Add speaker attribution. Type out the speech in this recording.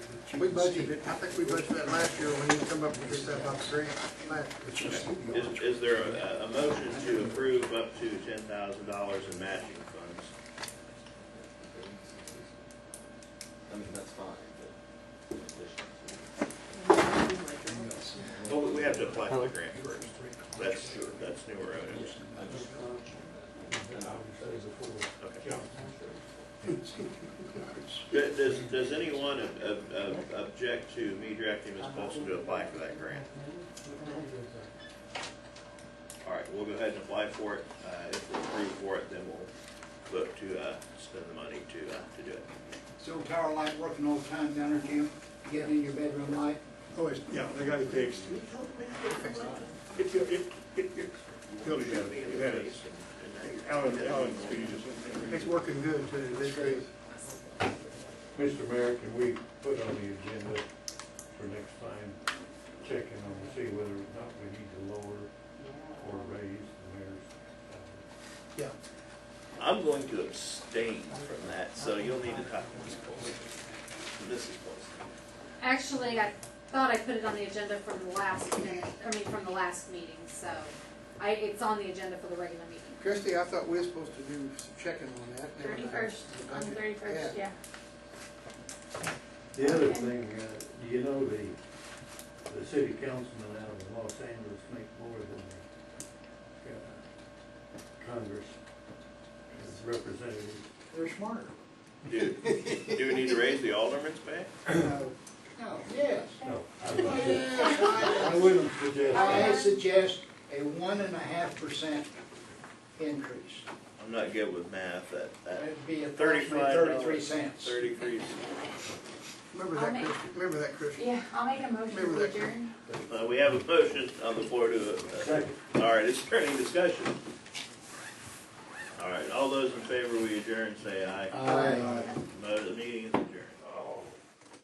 Speaker 1: We budgeted, I think we budgeted that last year when you come up with this stuff on three, last year.
Speaker 2: Is, is there a, a motion to approve up to ten thousand dollars in matching funds?
Speaker 3: I mean, that's fine, but. in addition to-
Speaker 2: Well, we- we have to apply for the grant first. That's, that's newer
Speaker 3: Yeah,
Speaker 2: items.
Speaker 3: I just- and I'll-
Speaker 2: Okay. Th- Does, does anyone ob- ob- ob- object to me directing Ms. Paulson to apply for that grant? All right, we'll go ahead and apply for it. Uh, If we're approved for it, then we'll look to uh, spend the money to, uh, to do it.
Speaker 4: So tower light working all the time down there, Jim? Getting in your bedroom light?
Speaker 5: Oh, it's, yeah, they got it fixed. It, it, it, it, it, Billy had it, it had it. Alan, Alan, he just.
Speaker 1: It's working good too, this is.
Speaker 6: Mr. Mayor, can we put on the agenda for next time, check in on to see whether or not we need to lower or raise the mayor's salary?
Speaker 1: Yeah.
Speaker 2: I'm going to abstain from that, so you'll need to talk to Ms. Paulson. Mrs. Paulson.
Speaker 7: Actually, I thought I put it on the agenda from the last minute, I mean, from the last meeting, so I, it's on the agenda for the regular meeting.
Speaker 1: Christie, I thought we were supposed to do some checking on that.
Speaker 8: Thirty-first, on the thirty-first, yeah.
Speaker 6: The other thing, uh, do you know, the, the city councilmen out of Los Angeles make more than the uh, Congress representatives.
Speaker 4: They're smarter.
Speaker 2: Do, do we need to raise the alderman's pay?
Speaker 4: No. No, Oh, yes.
Speaker 6: No, I wouldn't- I
Speaker 4: Yes,
Speaker 6: wouldn't suggest
Speaker 4: I, I
Speaker 6: that.
Speaker 4: suggest a one and a half percent increase.
Speaker 2: I'm not good with math, that, that
Speaker 4: That'd be approximately
Speaker 2: thirty-five dollars.
Speaker 4: thirty-three cents.
Speaker 2: Thirty-three,
Speaker 1: Remember
Speaker 8: I'll
Speaker 1: that,
Speaker 8: make-
Speaker 1: Christie, remember that, Christie?
Speaker 8: Yeah, I'll make a motion
Speaker 1: Maybe
Speaker 8: to
Speaker 1: that-
Speaker 8: adjourn.
Speaker 2: uh, we have a motion on the floor to, uh,
Speaker 6: Second.
Speaker 2: all right, is there any discussion? All right, all those in favor, we adjourn, say aye.
Speaker 4: Aye.
Speaker 2: Mo- The meeting is adjourned.